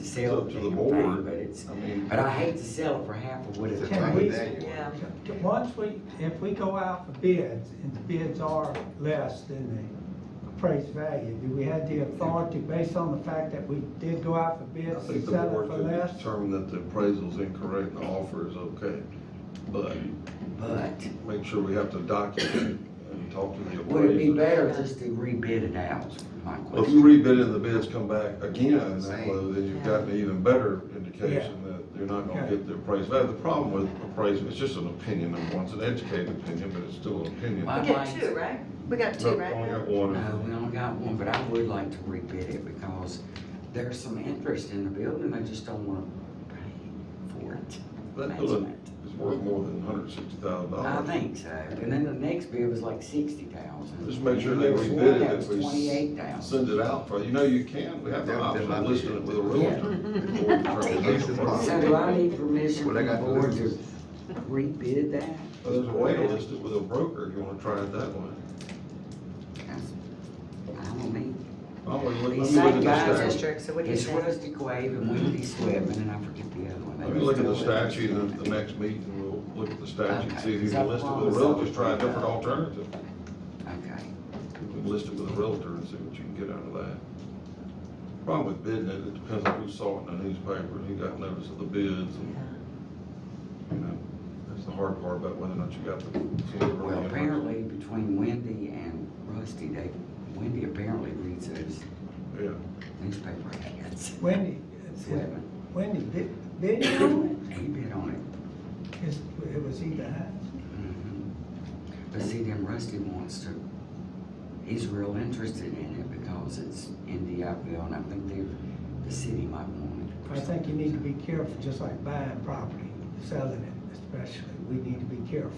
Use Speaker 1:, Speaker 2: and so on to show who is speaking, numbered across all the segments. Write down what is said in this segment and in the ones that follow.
Speaker 1: sell
Speaker 2: It's
Speaker 1: the
Speaker 2: up to the
Speaker 1: damn thing,
Speaker 2: board.
Speaker 1: but it's,
Speaker 2: I mean,
Speaker 1: but I hate to sell it for half of what
Speaker 2: It's a
Speaker 1: it's.
Speaker 3: Can
Speaker 2: time
Speaker 3: we-
Speaker 2: of day.
Speaker 4: Yeah.
Speaker 3: To- Once we, if we go out for bids, and the bids are less than the appraised value, do we have the authority, based on the fact that we did go out for
Speaker 2: I
Speaker 3: bids,
Speaker 2: think
Speaker 3: to
Speaker 2: the
Speaker 3: sell it
Speaker 2: board
Speaker 3: for
Speaker 2: could
Speaker 3: less?
Speaker 2: determine that the appraisal's incorrect and the offer is okay, but
Speaker 1: But
Speaker 2: make sure we have to document and talk to the appraiser.
Speaker 1: would it be better just to rebid it out, is my
Speaker 2: Well, If you
Speaker 1: question?
Speaker 2: rebid and the bids come back again in that low, then you've
Speaker 4: Yeah.
Speaker 2: got an even better indication that you're not gonna
Speaker 3: Okay.
Speaker 2: get the appraised value. The problem with appraisal, it's just an opinion, number one, it's an educated opinion, but it's still an opinion.
Speaker 1: Why-
Speaker 4: We got two, right? We got two,
Speaker 2: Nope,
Speaker 4: right?
Speaker 2: Only got
Speaker 1: No,
Speaker 4: now?
Speaker 1: we
Speaker 2: one.
Speaker 1: only got one, but I would like to rebid it because there's some interest in the building, they just don't wanna pay for it.
Speaker 2: That building
Speaker 1: Management.
Speaker 2: is worth more than hundred sixty thousand
Speaker 1: I
Speaker 2: dollars.
Speaker 1: think so, and then the next bid was like sixty thousand.
Speaker 2: Just make sure they rebid it if we
Speaker 1: Twenty-eight thousand.
Speaker 2: Send it out for, you know, you can, we have the
Speaker 5: Yeah,
Speaker 2: option
Speaker 5: then
Speaker 2: of
Speaker 5: I-
Speaker 2: listing it with a realtor. before we determine that's the problem.
Speaker 1: So do I need permission from
Speaker 5: Well, they
Speaker 1: the
Speaker 5: got the
Speaker 1: board to
Speaker 5: list.
Speaker 1: rebid that?
Speaker 2: Well, There's a way to list it with a broker if you wanna try it that way.
Speaker 1: That's- I don't mean.
Speaker 2: Oh, well, let me
Speaker 1: These
Speaker 2: look
Speaker 1: same guys
Speaker 2: at the
Speaker 1: just
Speaker 2: statute.
Speaker 4: District, so what do you
Speaker 1: It's
Speaker 4: think?
Speaker 1: Rusty Quave and Wendy Swedman, and I forget the other one. They
Speaker 2: Let me look at the
Speaker 1: just go with it.
Speaker 2: statute, and at the next meeting, we'll look at the statute,
Speaker 1: Okay.
Speaker 2: see if you can list it with a realtor, just try a different alternative.
Speaker 1: Okay,
Speaker 2: You can List it with a realtor and see what you can get out of that. Problem with bidding it, it depends on who saw it in the newspaper, and who got notice of the bids, and, you know, that's the hard part about whether or not you got the.
Speaker 1: well, apparently between Wendy and Rusty, they, Wendy apparently reads those
Speaker 2: Yeah,
Speaker 1: newspaper ads.
Speaker 3: Wendy,
Speaker 1: Swedman,
Speaker 3: Wendy bid, bid on
Speaker 1: he bid on it.
Speaker 3: it? It's- It was either Hines?
Speaker 1: Mhm. But see, then Rusty wants to, he's real interested in it because it's in Diablo, and I think they, the city might want it.
Speaker 3: I think you need to be careful, just like buying property, selling it especially, we need to be careful.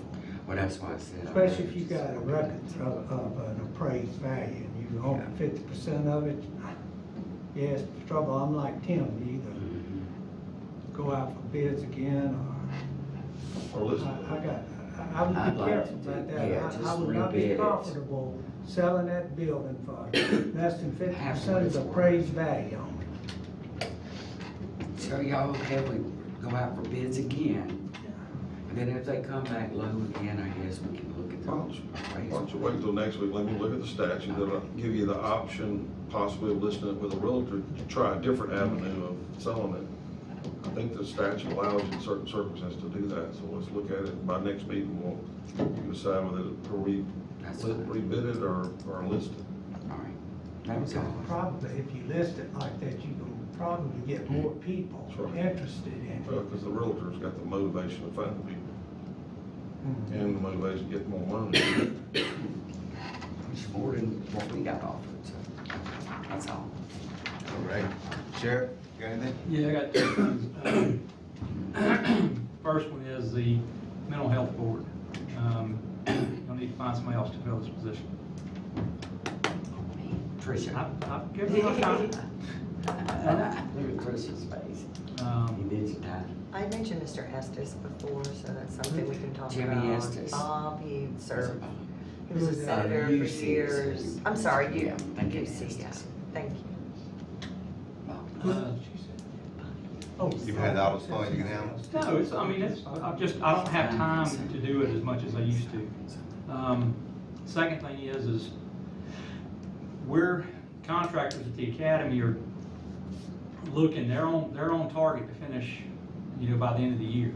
Speaker 1: Well, that's why I said. I'm
Speaker 3: Especially if you
Speaker 1: interested.
Speaker 3: got a record of, of an appraised value and you own fifty percent of it. Yes, trouble, I'm like Tim, you either
Speaker 1: Mhm.
Speaker 3: go out for bids again or,
Speaker 2: or list
Speaker 3: I, I
Speaker 2: it.
Speaker 3: got, I, I would
Speaker 1: I'd
Speaker 3: be
Speaker 1: like
Speaker 3: careful
Speaker 1: to
Speaker 3: about
Speaker 1: do-
Speaker 3: that.
Speaker 1: yeah,
Speaker 3: I- I
Speaker 1: just
Speaker 3: would not
Speaker 1: rebid
Speaker 3: be
Speaker 1: it.
Speaker 3: comfortable selling that building for less than fifty
Speaker 1: Half of
Speaker 3: percent of
Speaker 1: it's
Speaker 3: the
Speaker 1: worth.
Speaker 3: appraised value on it.
Speaker 1: So y'all have we go out for bids again? And then if they come back low again, I guess we can look at the
Speaker 2: Why Why don't
Speaker 1: appraisal.
Speaker 2: you wait until next week, let me look at the statute, that'll give you the option possibly of listing it with a realtor, to try a different avenue of selling it. I think the statute allows you in certain circumstances to do that, so let's look at it, by next meeting, we'll decide whether to re,
Speaker 1: That's fine.
Speaker 2: rebid it or, or list it.
Speaker 1: All right. That was all.
Speaker 3: Probably, if you list it like that, you can probably get
Speaker 1: Mm.
Speaker 3: more people
Speaker 2: That's right.
Speaker 3: interested in it.
Speaker 2: Well, because the realtor's got the motivation to find people,
Speaker 1: Mm.
Speaker 2: and the motivation to get more money.
Speaker 1: It's more than what we got offered, so that's all.
Speaker 5: All right, Sheriff, got anything?
Speaker 6: Yeah, I got two things. Uh, First one is the mental health board. Um, You'll need to find somebody else to fill this position.
Speaker 1: Tricia.
Speaker 6: I've, I've given my time.
Speaker 1: Look at Tricia's face. He
Speaker 6: Um,
Speaker 1: bids it out.
Speaker 4: I mentioned Mr. Estes before, so that's something we can talk about.
Speaker 1: Jimmy Estes.
Speaker 4: Bob, he served, he was
Speaker 3: Who's
Speaker 4: a
Speaker 3: that?
Speaker 4: senator
Speaker 1: Uh,
Speaker 4: for
Speaker 1: UC.
Speaker 4: years. I'm sorry, you,
Speaker 1: Yeah, thank you,
Speaker 4: UC, yeah,
Speaker 1: Estes.
Speaker 4: thank you.
Speaker 6: uh,
Speaker 5: You've had all the fun you can have.
Speaker 6: No, it's, I mean, it's, I- I've just, I don't have time to do it as much as I used to. Um, Second thing is, is we're contractors at the academy are looking, they're on, they're on target to finish, you know, by the end of the year.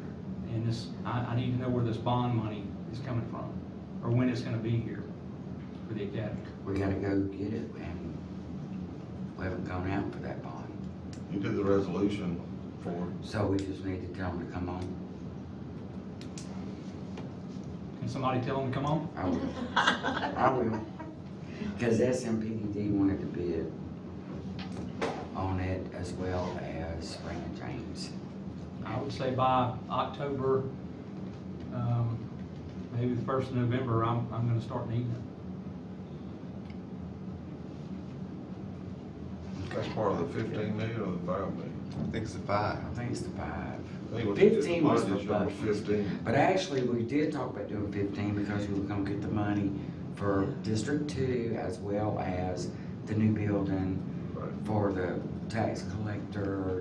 Speaker 6: And this, I, I need to know where this bond money is coming from, or when it's gonna be here for the academy.
Speaker 1: We gotta go get it and we haven't gone out for that bond.
Speaker 2: You did the resolution for it.
Speaker 1: So we just need to tell them to come on.
Speaker 6: Can somebody tell them to come on?
Speaker 1: I will. I will. Cause SMPD wanted to bid on it as well as Raymond James.
Speaker 6: I would say by October, um, maybe the first of November, I'm, I'm gonna start needing it.
Speaker 2: That's part of the fifteen million or the five million?
Speaker 5: I think it's a five.
Speaker 1: I think it's the five.
Speaker 2: I think what they did
Speaker 1: 15 was
Speaker 2: budget
Speaker 1: for
Speaker 2: is number
Speaker 1: budget.
Speaker 2: Fifteen.
Speaker 1: But actually, we did talk about doing fifteen because we were gonna get the money for District Two as well as the new building
Speaker 2: Right.
Speaker 1: for the tax collector